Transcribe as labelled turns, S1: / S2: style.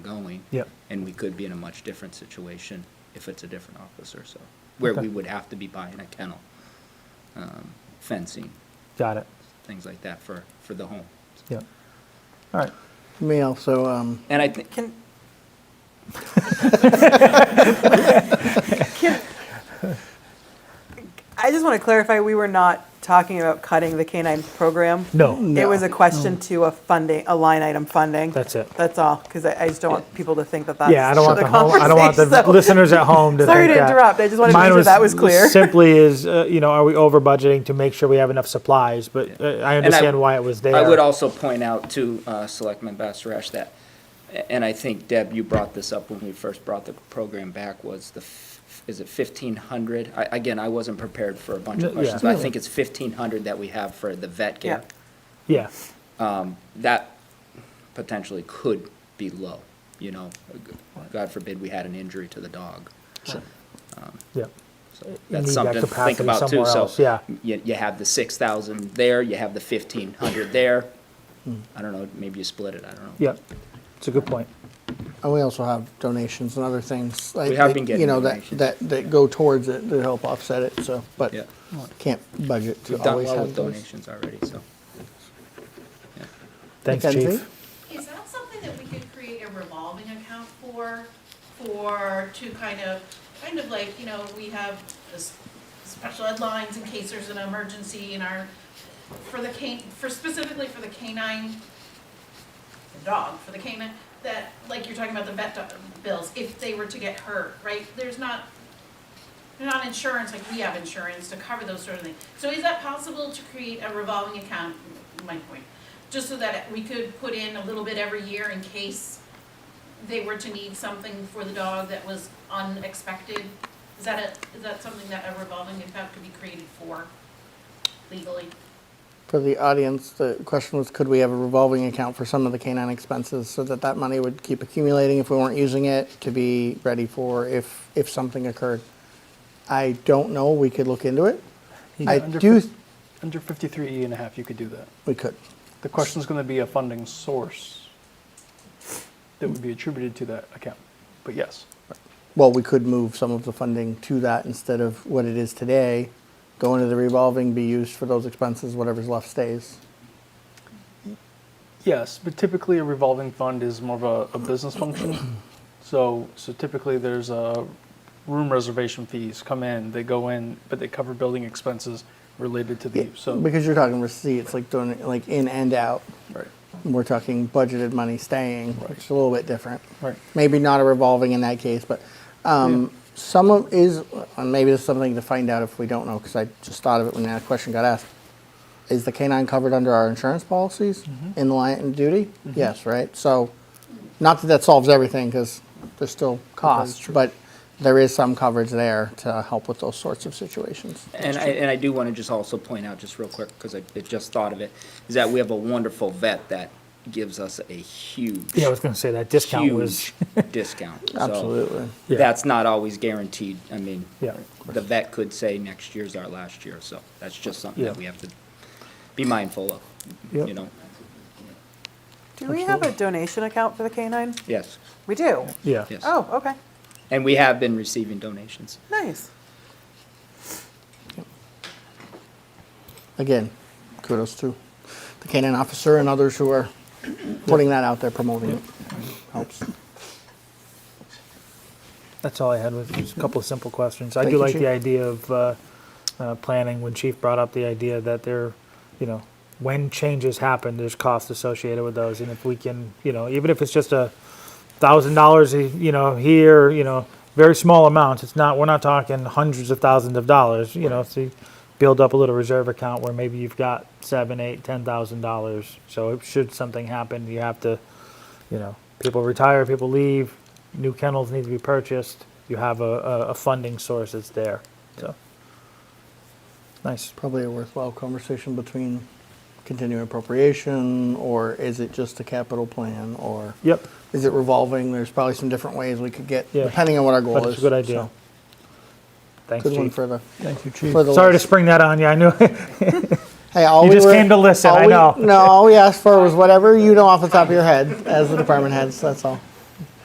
S1: meeting.
S2: Yep.
S1: And we could be in a much different situation if it's a different officer, so, where
S2: Okay.
S1: we would have to be buying a kennel, um, fencing,
S2: Got it.
S1: things like that for, for the home.
S2: Yep. All right.
S3: Me also, um,
S1: And I think,
S4: Can, I just want to clarify, we were not talking about cutting the K-9 program.
S2: No,
S4: It was a question to a funding, a line item funding.
S2: That's it.
S4: That's all, because I I just don't want people to think that that's
S2: yeah, I don't want the home, I don't want the
S4: conversation, so-
S2: listeners at home to
S4: Sorry
S2: think
S4: to
S2: that.
S4: interrupt, I just wanted to
S2: Mine
S4: make sure that was clear.
S2: Simply is, uh, you know, are we over budgeting to make sure we have enough supplies? But uh, I understand why it was there.
S1: I would also point out to uh, Selectman Basarash that, and I think Deb, you brought this up when we first brought the program back, was the, f- is it fifteen hundred? I, again, I wasn't prepared for a bunch of
S2: Yeah.
S1: questions, but I think it's fifteen hundred that we have for the vet care.
S2: Yeah,
S1: That potentially could be low, you know, God forbid we had an injury to the dog.
S2: yeah,
S1: So
S2: need
S1: That's
S2: that
S1: something to think
S2: capacity
S1: about too,
S2: somewhere
S1: so.
S2: else, yeah.
S1: You, you have the six thousand there, you have the fifteen hundred there. I don't know, maybe you split it, I don't know.
S2: Hmm. yeah. It's a good point.
S3: and uh, we also have donations and other things. like-
S1: We have
S3: like,
S1: been getting
S3: You know, that,
S1: donations.
S3: that, that go towards it to help offset it, so, but
S1: Yeah.
S3: can't budget to
S1: We've done
S3: always
S1: well with
S3: have those.
S1: donations already, so.
S2: Thanks,
S3: Mackenzie?
S2: Chief.
S5: Is that something that we could create a revolving account for, for, to kind of, kind of like, you know, we have this special ed lines in case there's an emergency in our, for the can, for specifically for the canine, the dog, for the canine, that, like you're talking about the vet do- bills, if they were to get hurt, right? There's not, they're not insurance, like we have insurance to cover those sort of things. So is that possible to create a revolving account, my point, just so that we could put in a little bit every year in case they were to need something for the dog that was unexpected? Is that a, is that something that a revolving account could be created for legally?
S3: For the audience, the question was, could we have a revolving account for some of the canine expenses so that that money would keep accumulating if we weren't using it to be ready for if, if something occurred? I don't know, we could look into it. I
S6: under
S3: do,
S6: fif- Under 53E and a half, you could do that.
S3: we could.
S6: The question's going to be a funding source that would be attributed to that account. But yes,
S3: Well, we could move some of the funding to that instead of what it is today, go into the revolving, be used for those expenses, whatever's left stays.
S6: yes, but typically a revolving fund is more of a, a business function. So, so typically there's a room reservation fees come in, they go in, but they cover building expenses related to the use. So,
S3: Because you're talking receipts, like doing, it, like in and out,
S6: right,
S3: we're talking budgeted money staying, which is a little bit different.
S6: right.
S3: maybe not a revolving in that case, but um, some of is, and maybe this is something to find out if we don't know, because I just thought of it when that question got asked. Is the canine covered under our insurance policies
S6: Mm-hmm.
S3: in line and duty? Yes, right? So, not that that solves everything, because there's still costs, but there is some coverage there to help with those sorts of situations.
S1: And I, and I do want to just also point out, just real quick, because I I just thought of it, is that we have a wonderful vet that gives us a huge,
S2: Yeah, I was gonna say that discount was,
S1: huge discount. So
S3: Absolutely.
S2: Yeah.
S1: That's not always guaranteed. I mean,
S2: Yeah.
S1: the vet could say next year's our last year, so that's just something
S2: Yeah.
S1: that we have to be mindful of,
S2: Yep.
S1: you know?
S4: Do we have a donation account for the K-9?
S1: Yes,
S4: We do?
S2: yeah.
S1: yes.
S4: Oh, okay,
S1: And we have been receiving donations.
S4: nice.
S3: Again, kudos to the canine officer and others who are putting that out there, promoting it. Helps.
S2: That's all I had was just a couple of simple questions. I
S3: Thank
S2: do
S3: you,
S2: like
S3: Chief.
S2: the idea of uh, uh, planning. When Chief brought up the idea that there, you know, when changes happen, there's costs associated with those, and if we can, you know, even if it's just a thousand dollars, you know, here, you know, very small amounts. It's not. We're not talking hundreds of thousands of dollars. You know, so you build up a little reserve account where maybe you've got seven, eight, ten thousand dollars. So if should something happen, you have to you know, people retire, people leave, new kennels need to be purchased. You have a, a, a funding source that's there. So nice.
S3: probably a worthwhile conversation between continuing appropriation, or is it just a capital plan, or
S2: Yep.
S3: is it revolving? There's probably some different ways we could get,
S2: Yeah.
S3: depending on what our goal
S2: But
S3: is.
S2: it's a good idea.
S3: So,
S2: Thanks,
S3: Good one
S2: Chief.
S3: for the,
S2: Thank you,
S3: for the
S2: Sorry to
S3: list.
S2: spring that on you. I knew
S3: hey, all
S2: You
S3: we
S2: just
S3: were-
S2: came to listen,
S3: all
S2: I
S3: we-
S2: know.
S3: No, all we asked for was whatever you know off the top of your head as the department heads, that's all.